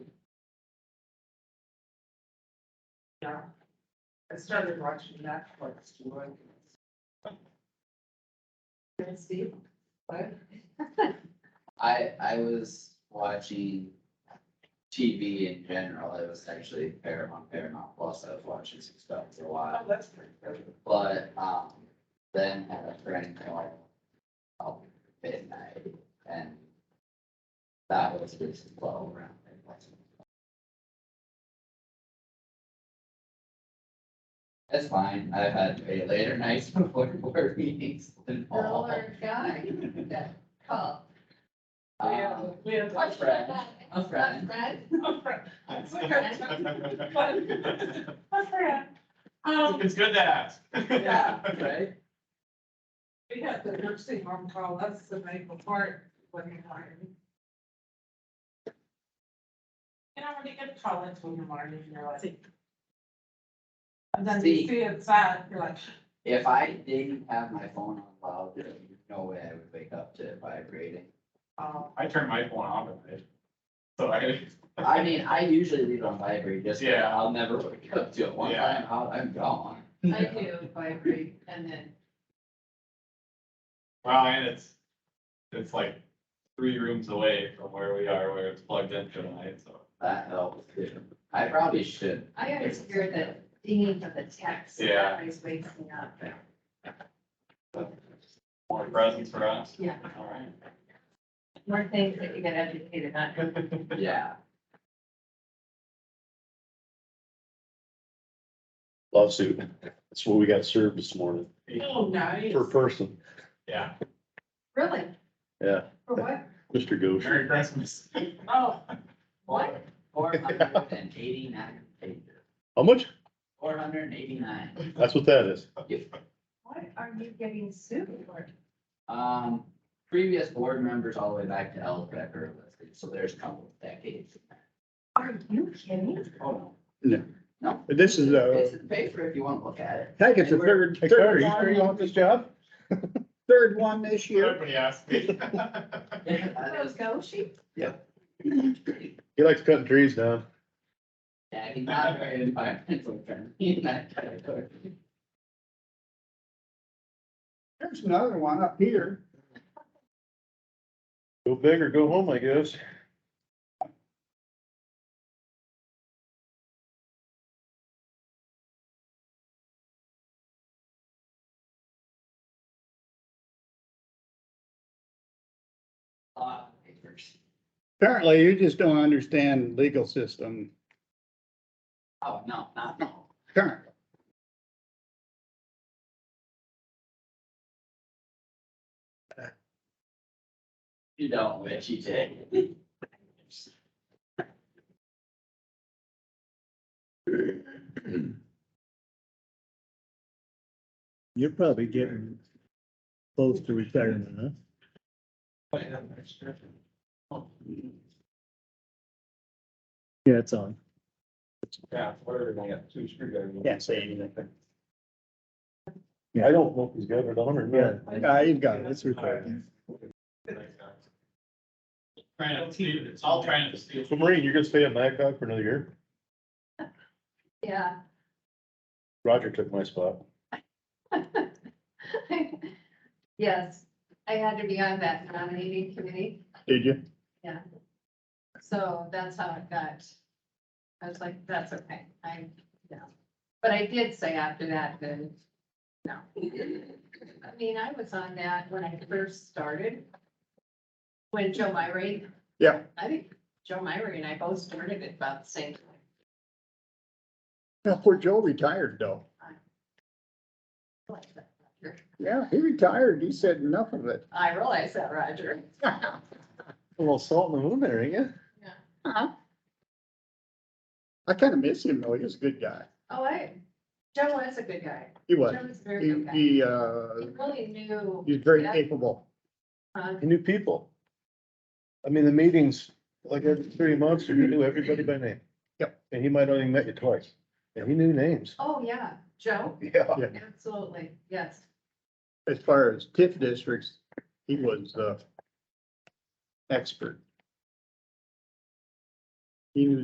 Yeah. I started watching Netflix. to learn this. Can I see? What? I, I was watching TV in general, it was actually Paramount, Paramount Plus, I was watching some stuff for a while. Oh, that's pretty good. But, um, then had a friend call up at midnight and that was just flow around. It wasn't- That's fine. I've had way later nights before board meetings than Girl all. or guy that called? Oh, We have, Um, we have. A friend, Um, a A friend. friend? A friend. A friend. Um, It's good to ask. Yeah. Right? we had the nursing home call us the night before William Martin. You know, when you get called into William Martin, you're like. And then you See. see it's sad, you're like, If I didn't have my phone on loud, there's no way I would wake up to it vibrating. oh, I turn my phone off at night. So I. I mean, I usually leave it on vibrate just, 'cause Yeah. I'll never wake up to it. One Yeah. time, I'll- I'm gone. I do vibrate and then Well, and it's, it's like three rooms away from where we are, where it's plugged in tonight, so. That helps too. I probably should. I always hear the dinging of the text. that Yeah. Always wakes me up. More presents for us. Yeah, All right. more things that you get educated on. Yeah. lawsuit. That's what we got served this morning oh, nice. per person. Yeah, Really? Yeah. For what? Mr. Goshen, Merry Christmas. Oh, What? Four hundred and eighty-nine pages. how much? Four hundred and eighty-nine. That's what that is. What are you getting sued for? Um, previous board members all the way back to E Al Becker listed, so there's a couple of decades. Are you kidding? Oh, But This is uh, a, It's in the paper if you want to look at it. I think it's the third, Hey, third Carter, you one, sure you want this job? third one this year. Everybody asked me. That Those is- go sheep? He likes cutting trees down. Yeah, he's not very environmental friendly in that category. There's another one up here. Go big or go home, I guess. Lot of papers. Apparently, you just don't understand legal system Oh, no, not no. currently. You don't, which you did. You're probably getting close to retirement, huh? Yeah, it's on. Yeah, where I got two screwdrivers. Can't say anything. I don't know if he's got it on or Yeah, not. yeah, you've got it, it's recorded. Trying to steal, it's all trying to steal. So Maureen, you're gonna stay at Blackhawk for another year? Yeah. Roger took my spot. Yes, I had to be on that nominating committee. Did you? So that's how it got. I was like, that's okay, I, no. But I did say after that, then, no. I mean, I was on that when I first started. When Joe Myrie. Yeah. I think Joe Myrie and I both started at about the same time. Now, poor Joe retired though. Like that, Roger. Yeah, he retired. He said enough of it. I realized that, Roger. A little salt in the wound there, ain't ya? Uh-huh. I kind of miss him though. He was a good guy. Oh, I, Joe was a good guy. He Joe was. was a very He, good guy. He he, uh, really knew. he was very Yeah. capable. uh, He knew people. I mean, the meetings, like every three months, you knew everybody by name. Yep. And he might only met you twice. And he knew names. Oh, yeah, Joe, Yeah. absolutely, yes. As far as TIF districts, he was, uh, expert. He knew